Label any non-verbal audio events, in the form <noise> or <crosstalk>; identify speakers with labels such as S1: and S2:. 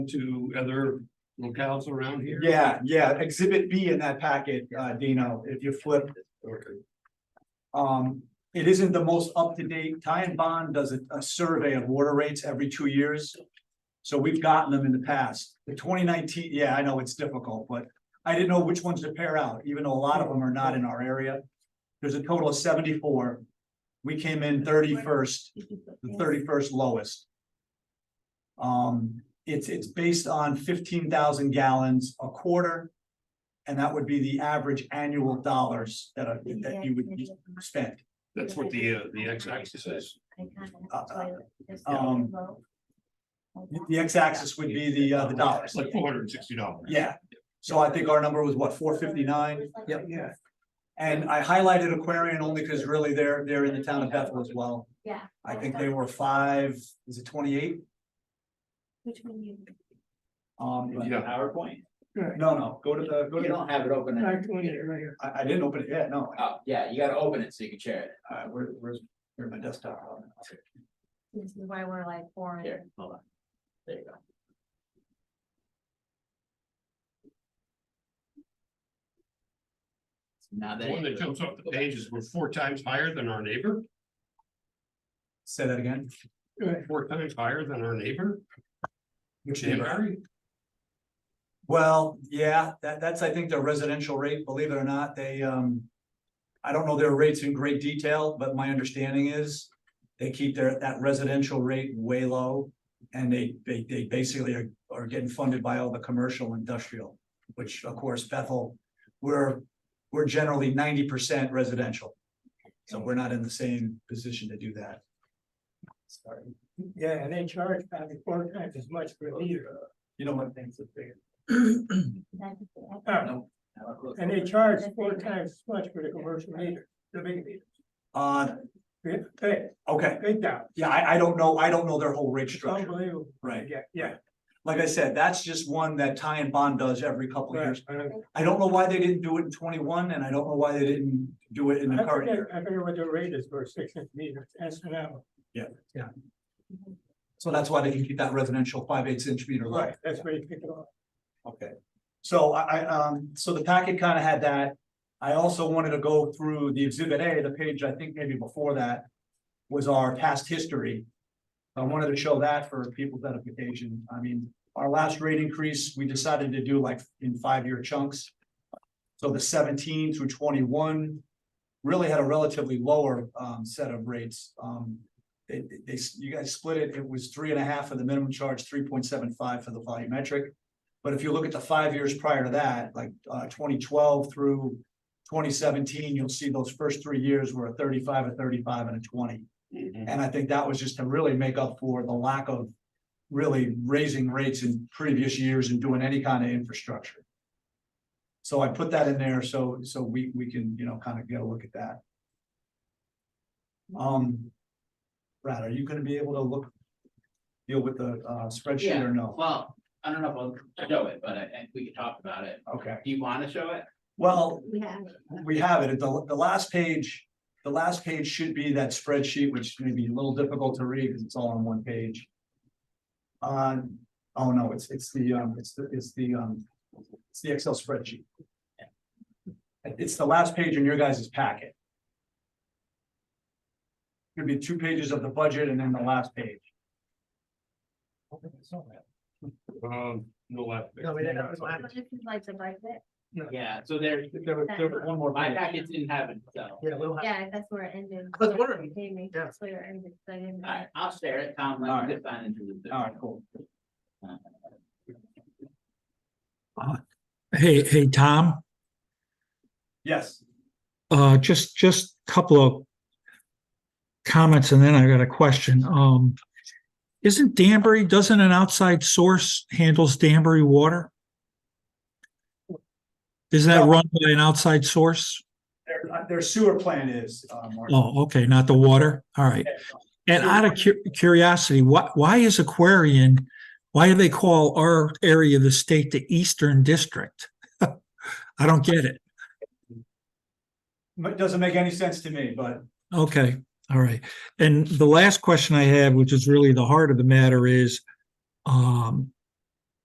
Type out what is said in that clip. S1: to other locales around here?
S2: Yeah, yeah, exhibit B in that packet, uh, Dino, if you flip,
S1: Okay,
S2: um, it isn't the most up-to-date. Ty and Bond does a, a survey of water rates every two years. So we've gotten them in the past. The twenty nineteen, yeah, I know it's difficult, but I didn't know which ones to pair out, even though a lot of them are not in our area. There's a total of seventy-four. We came in thirty-first. the thirty-first lowest. Um, it's, it's based on fifteen thousand gallons a quarter. And that would be the average annual dollars that, are- that you would spend.
S1: that's what the, uh, the X axis is.
S2: uh, Um, The x-axis would be the, uh, the
S1: It's
S2: dollars.
S1: like four hundred and sixty dollars.
S2: Yeah, so I think our number was what, four fifty-nine?
S3: Yep.
S2: Yeah. And I highlighted Aquarian only because really they're, they're in the town of Bethel as well.
S3: Yeah.
S2: I think they were five, is it twenty-eight?
S3: Which one you?
S2: Um, but-
S1: Yeah.
S4: PowerPoint?
S2: no, no, go to the, go
S4: You
S2: to,
S4: don't have it open.
S5: I'm doing it right here.
S2: I, I didn't open it yet, no.
S4: Oh, yeah, you gotta open it so you can share it.
S2: Uh, where, where's, where's my desktop?
S3: This is why we're like four.
S4: Here, hold on. There you go. Now
S1: The
S4: that.
S1: one that jumps off the page is we're four times higher than our neighbor,
S2: Say that again.
S5: Right.
S1: four times higher than our neighbor,
S2: Which
S1: Danbury.
S2: Well, yeah, that, that's, I think, their residential rate, believe it or not, they, um. I don't know their rates in great detail, but my understanding is they keep their, that residential rate way low. And they, they, they basically are, are getting funded by all the commercial industrial, which of course Bethel, we're, we're generally ninety percent residential. So we're not in the same position to do that. Sorry,
S5: Yeah, and they charge probably four times as much per liter.
S2: you know what?
S5: Things are bigger.
S3: That's
S5: Uh,
S4: No, now it looks-
S5: And they charge four times as much for the commercial meter, the big meter.
S2: Uh,
S5: Big, big,
S2: okay,
S5: big down.
S2: yeah, I, I don't know, I don't know their whole rate
S5: It's
S2: structure.
S5: unbelievable.
S2: Right.
S5: Yeah, yeah.
S2: Like I said, that's just one that Ty and Bond does every couple of
S5: right. uh,
S2: years.
S5: I don't-
S2: I don't know why they didn't do it in twenty-one and I don't know why they didn't do it in
S5: I
S2: the current
S5: forget,
S2: year.
S5: I forget what the rate is for six inch meters, that's an hour.
S2: So that's why they can keep that residential five-eighths inch meter low.
S5: Right, that's where you pick it up.
S2: Okay, so I, I, um, so the packet kind of had that. I also wanted to go through the exhibit A, the page I think maybe before that was our past history. I wanted to show that for people's edification. I mean, our last rate increase, we decided to do like in five-year chunks. So the seventeen through twenty-one really had a relatively lower, um, set of rates. Um, they, they- they, you guys split it, it was three and a half for the minimum charge, three point seven five for the volumetric. But if you look at the five years prior to that, like uh twenty twelve through twenty seventeen, you'll see those first three years were a thirty-five, a thirty-five and a twenty. And I think that was just to really make up for the lack of really raising rates in previous years and doing any kind of infrastructure. So I put that in there so so we we can, you know, kind of get a look at that. Um, Brad, are you gonna be able to look, deal with the uh spreadsheet or no?
S4: Well, I don't know if I'll show it, but I, I- we can talk about it.
S2: Okay,
S4: Do you wanna show it?
S2: well,
S3: Yeah.
S2: we have it, the, the last page, the last page should be that spreadsheet, which may be a little difficult to read, because it's all on one page. Uh, oh no, it's, it's the, um, it's the, it's the, um, it's the Excel spreadsheet. It's the last page in your guys' packet. Could be two pages of the budget and then the last page.
S1: Um, no last.
S5: No, we didn't have it last.
S3: But if you'd like to write it,
S4: Yeah, so there,
S5: There was, there was one more.
S4: my
S5: page.
S4: packet didn't have it, so.
S5: Yeah, we'll have.
S3: yeah, that's where it ended.
S5: I was wondering,
S3: Gave me,
S5: yeah.
S3: That's where it ended. so I didn't-
S4: Alright, I'll share it, Tom, let me
S2: Alright.
S4: just sign into the. Zoom.
S2: All right, cool.
S6: Hey, hey, Tom,
S2: Yes,
S6: uh, just, just a couple of comments and then I got a question. Um, isn't Danbury, doesn't an outside source handles Danbury water? Is that run by an outside source?
S2: their, their sewer plan is, uh, Mark.
S6: Oh, okay, not the water. All right. And out of cu- curiosity, why, why is Aquarian, why do they call our area of the state the Eastern District? <laughs> I don't get it.
S2: But it doesn't make any sense to me, but
S6: Okay, all right. And the last question I have, which is really the heart of the matter is, um,